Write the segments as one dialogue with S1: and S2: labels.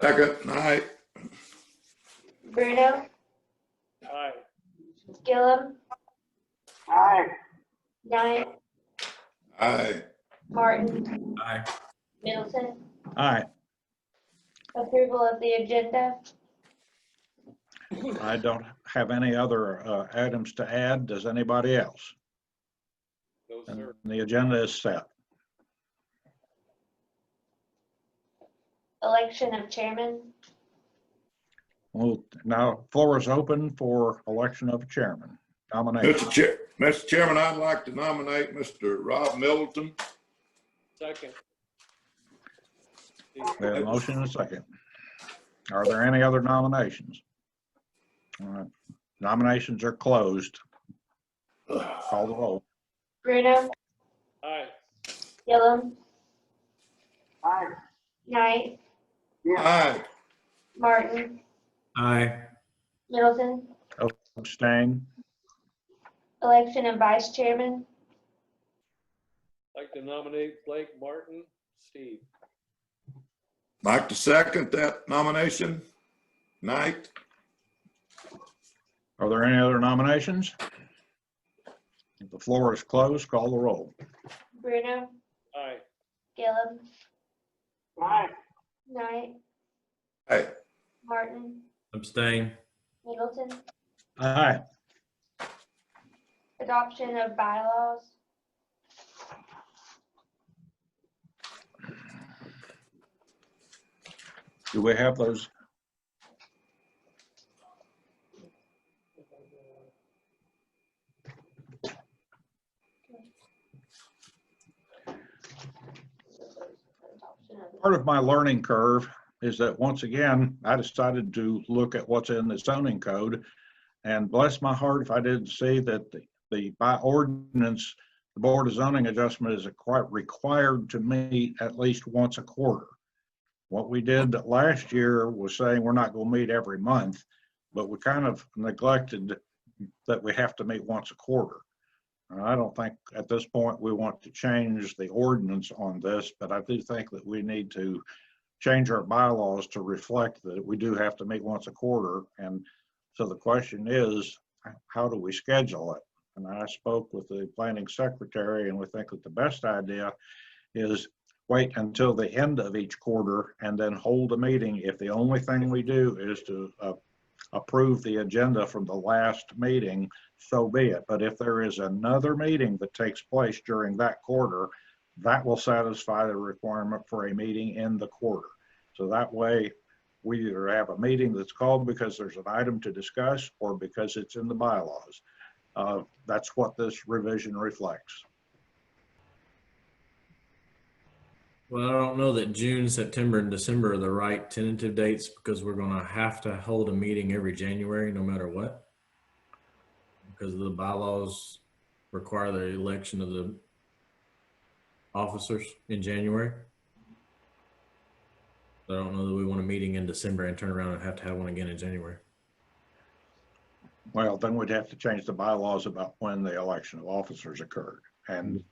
S1: Second, aye.
S2: Bruno,
S3: Aye.
S2: Gillum,
S4: Aye.
S2: Nine,
S1: Aye.
S2: Martin,
S5: Aye.
S2: Middleton.
S6: Aye.
S2: Approval of the agenda.
S6: I don't have any other uh, items to add. Does anybody else?
S3: No,
S6: And
S3: sir.
S6: The agenda is set.
S2: Election of chairman.
S6: Well, now floor is open for election of chairman. Nomination.
S1: Mr. Chair, Mr. Chairman, I'd like to nominate Mr. Rob Middleton.
S3: Second.
S6: We have a motion and a second. Are there any other nominations? All right. Nominations are closed. Call the roll.
S2: Bruno,
S3: Aye.
S2: Gillum,
S4: Aye.
S2: Knight,
S1: Aye.
S2: Martin,
S5: Aye.
S2: Middleton.
S6: Abstain.
S2: Election of vice chairman.
S3: Like to nominate Blake Martin, Steve.
S1: Like to second that nomination. Knight?
S6: Are there any other nominations? If the floor is closed, call the roll.
S2: Bruno,
S3: Aye.
S2: Gillum,
S4: Aye.
S2: Knight,
S1: Aye.
S2: Martin,
S5: Abstain.
S2: Middleton.
S6: Aye.
S2: Adoption of bylaws.
S6: Do we have those?
S2: Adoption of-
S6: Part of my learning curve is that once again, I decided to look at what's in the zoning code. And bless my heart if I didn't see that the, the by ordinance, the Board of Zoning Adjustment is quite required to meet at least once a quarter. What we did last year was saying we're not going to meet every month, but we kind of neglected that we have to meet once a quarter. And I don't think at this point we want to change the ordinance on this, but I do think that we need to change our bylaws to reflect that we do have to meet once a quarter. And so the question is, how do we schedule it? And I spoke with the planning secretary and we think that the best idea is wait until the end of each quarter and then hold a meeting if the only thing we do is to uh, approve the agenda from the last meeting, so be it. But if there is another meeting that takes place during that quarter, that will satisfy the requirement for a meeting in the quarter. So that way, we either have a meeting that's called because there's an item to discuss or because it's in the bylaws. Uh, That's what this revision reflects.
S5: Well, I don't know that June, September, and December are the right tentative dates because we're going to have to hold a meeting every January, no matter what. Because the bylaws require the election of the officers in January. I don't know that we want a meeting in December and turn around and have to have one again in January.
S6: Well, then we'd have to change the bylaws about when the election of officers occurred. And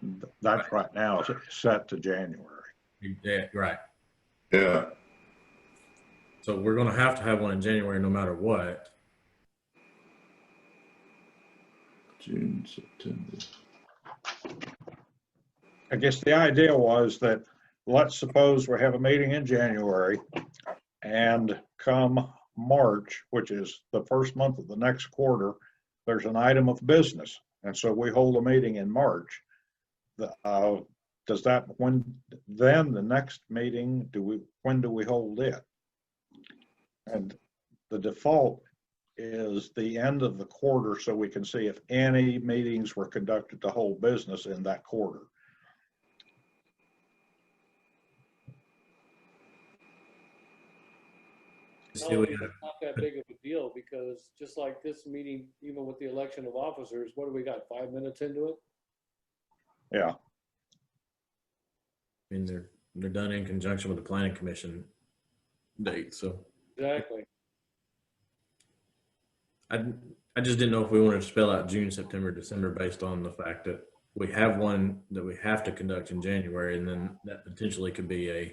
S6: th- that's right now is set to January.
S5: Yeah, right.
S1: Yeah.
S5: So we're going to have to have one in January, no matter what.
S1: June, September.
S6: I guess the idea was that, let's suppose we have a meeting in January and come March, which is the first month of the next quarter, there's an item of business. And so we hold a meeting in March. The, uh, does that, when, then the next meeting, do we, when do we hold it? And the default is the end of the quarter so we can see if any meetings were conducted to whole business in that quarter.
S5: See, we-
S3: It's Not that big of a deal because just like this meeting, even with the election of officers, what do we got, five minutes into it?
S6: Yeah,
S5: I mean, they're, they're done in conjunction with the planning commission date, so.
S3: Exactly.
S5: I, I just didn't know if we wanted to spell out June, September, December based on the fact that we have one that we have to conduct in January and then that potentially could be a